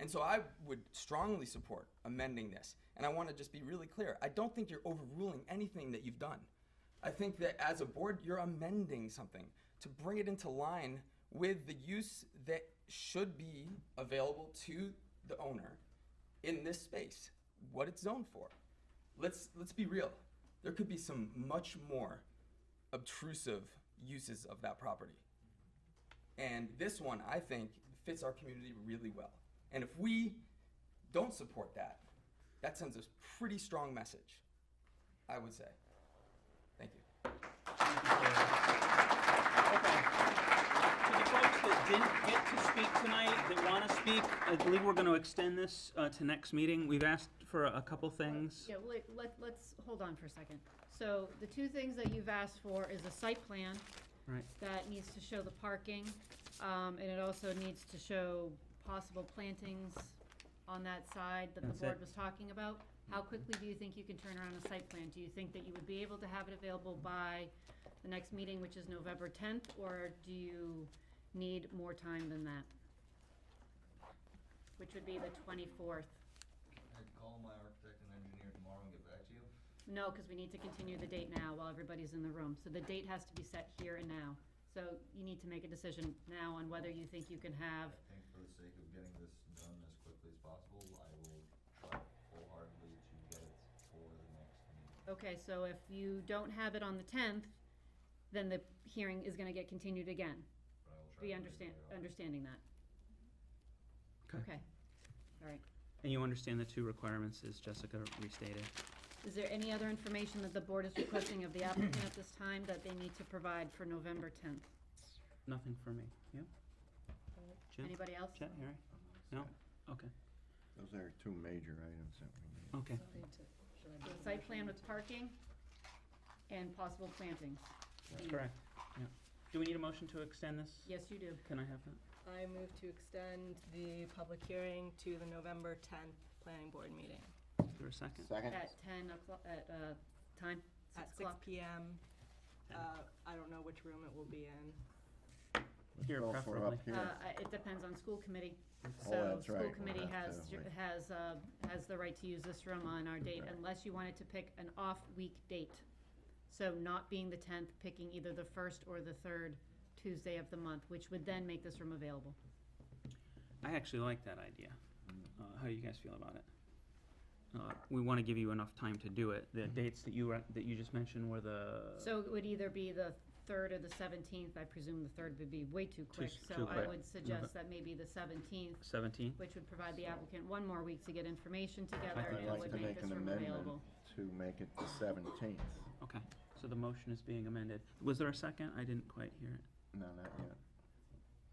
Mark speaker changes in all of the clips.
Speaker 1: And so I would strongly support amending this. And I want to just be really clear. I don't think you're overruling anything that you've done. I think that as a board, you're amending something to bring it into line with the use that should be available to the owner in this space, what it's zoned for. Let's let's be real. There could be some much more obtrusive uses of that property. And this one, I think, fits our community really well. And if we don't support that, that sends a pretty strong message, I would say. Thank you.
Speaker 2: To the folks that didn't get to speak tonight, that want to speak, I believe we're going to extend this uh, to next meeting. We've asked for a couple things.
Speaker 3: Yeah, let, let, let's hold on for a second. So the two things that you've asked for is a site plan
Speaker 2: Right.
Speaker 3: that needs to show the parking, um, and it also needs to show possible plantings on that side that the
Speaker 2: That's it.
Speaker 3: board was talking about. How quickly do you think you can turn around a site plan? Do you think that you would be able to have it available by the next meeting, which is November tenth, or do you need more time than that? Which would be the twenty-fourth.
Speaker 4: I can call my architect and engineer tomorrow and get back to you.
Speaker 3: No, because we need to continue the date now while everybody's in the room. So the date has to be set here and now. So you need to make a decision now on whether you think you can
Speaker 4: I
Speaker 3: have,
Speaker 4: think for the sake of getting this done as quickly as possible, I will try wholeheartedly to get it for the next meeting.
Speaker 3: okay, so if you don't have it on the tenth, then the hearing is gonna get continued again.
Speaker 4: But I will try.
Speaker 3: Be
Speaker 4: to
Speaker 3: understand,
Speaker 4: make it
Speaker 3: understanding that.
Speaker 2: Okay.
Speaker 3: Okay, all right.
Speaker 2: And you understand the two requirements as Jessica restated.
Speaker 3: Is there any other information that the board is requesting of the applicant at this time that they need to provide for November tenth?
Speaker 2: Nothing for me. Yeah? Jim?
Speaker 3: Anybody else?
Speaker 2: Chet, Harry? No? Okay.
Speaker 5: Those are two major items that we need.
Speaker 2: Okay.
Speaker 3: So the Site plan with parking and possible plantings.
Speaker 2: Correct. Yeah. Do we need a motion to extend this?
Speaker 3: Yes, you do.
Speaker 2: Can I have that?
Speaker 6: I move to extend the public hearing to the November 10th planning board meeting
Speaker 2: Is there a second?
Speaker 5: Second?
Speaker 3: At ten o'clock, at, uh, time,
Speaker 6: at
Speaker 3: six
Speaker 6: 6
Speaker 3: o'clock.
Speaker 6: PM. Uh, I don't know which room it will be in.
Speaker 2: Here,
Speaker 5: Go for
Speaker 2: preferably.
Speaker 5: up
Speaker 3: Uh,
Speaker 5: here.
Speaker 3: I- it depends on school committee.
Speaker 5: Oh,
Speaker 3: So,
Speaker 5: that's right,
Speaker 3: school
Speaker 5: we'll
Speaker 3: committee
Speaker 5: have
Speaker 3: has,
Speaker 5: to
Speaker 3: ju-
Speaker 5: wait.
Speaker 3: has, uh, has the right to use this room on our date
Speaker 5: Right.
Speaker 3: unless you wanted to pick an off-week date. So not being the tenth, picking either the first or the third Tuesday of the month, which would then make this room available.
Speaker 2: I actually like that idea. Uh, how do you guys feel about it? Uh, we want to give you enough time to do it. The dates that you were, that you just mentioned were the
Speaker 3: So it would either be the third or the seventeenth. I presume the third would be way too quick.
Speaker 2: s- too
Speaker 3: So I
Speaker 2: quick.
Speaker 3: would suggest that maybe the seventeenth
Speaker 2: 17th.
Speaker 3: which would provide the applicant one more week to get information together,
Speaker 2: I'd
Speaker 3: and
Speaker 5: I'd
Speaker 3: it
Speaker 5: like
Speaker 3: would
Speaker 5: to
Speaker 3: make
Speaker 5: make
Speaker 3: this
Speaker 5: an
Speaker 3: room
Speaker 5: amendment
Speaker 3: available.
Speaker 5: to make it the seventeenth.
Speaker 2: Okay. So the motion is being amended. Was there a second? I didn't quite hear it.
Speaker 5: No, not yet.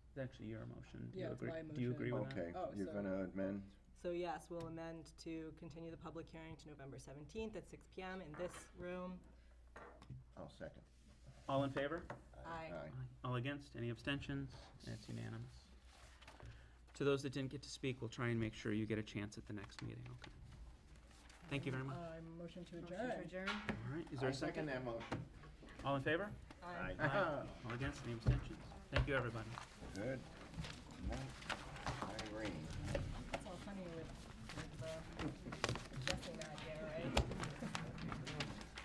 Speaker 2: It's actually your motion. Do you
Speaker 7: Yeah, it's
Speaker 2: agree-
Speaker 7: my
Speaker 2: Do you
Speaker 7: motion.
Speaker 2: agree with that?
Speaker 5: Okay,
Speaker 7: Oh,
Speaker 5: you're
Speaker 7: so-
Speaker 5: gonna amend?
Speaker 6: So yes, we'll amend to continue the public hearing to November 17th at 6 PM in this room.
Speaker 5: I'll second.
Speaker 2: All in favor?
Speaker 6: Aye.
Speaker 5: Aye.
Speaker 2: All against? Any abstentions? That's unanimous. To those that didn't get to speak, we'll try and make sure you get a chance at the next meeting. Okay. Thank you very much.
Speaker 7: Uh, motion to
Speaker 3: Motion to
Speaker 7: adjourn.
Speaker 3: adjourn?
Speaker 2: All right. Is there a
Speaker 5: I'll
Speaker 2: second?
Speaker 5: that motion.
Speaker 2: All in favor?
Speaker 6: Aye.
Speaker 2: Aye. All against? Any abstentions? Thank you, everybody.
Speaker 5: Good. Nice. Irene.
Speaker 6: It's all funny with, with, uh, adjusting that, yeah, right?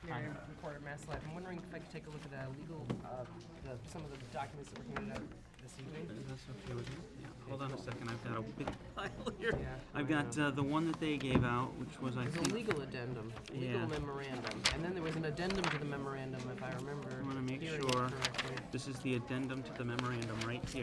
Speaker 8: Miriam from Porter Maslin. I'm wondering if I could take a look at the legal, uh, the, some of the documents that were handed out this evening.
Speaker 2: Is this okay with you? Yeah, hold on a second, I've got a big pile here.
Speaker 8: Yeah,
Speaker 2: I've got uh, the one that they gave out, which was, I
Speaker 8: There's a
Speaker 2: think,
Speaker 8: legal addendum,
Speaker 2: Yeah.
Speaker 8: legal memorandum, and then there was an addendum to the memorandum, if I remember.
Speaker 2: I want to make
Speaker 8: hearing it
Speaker 2: sure,
Speaker 8: correctly.
Speaker 2: this is the addendum to the memorandum right here.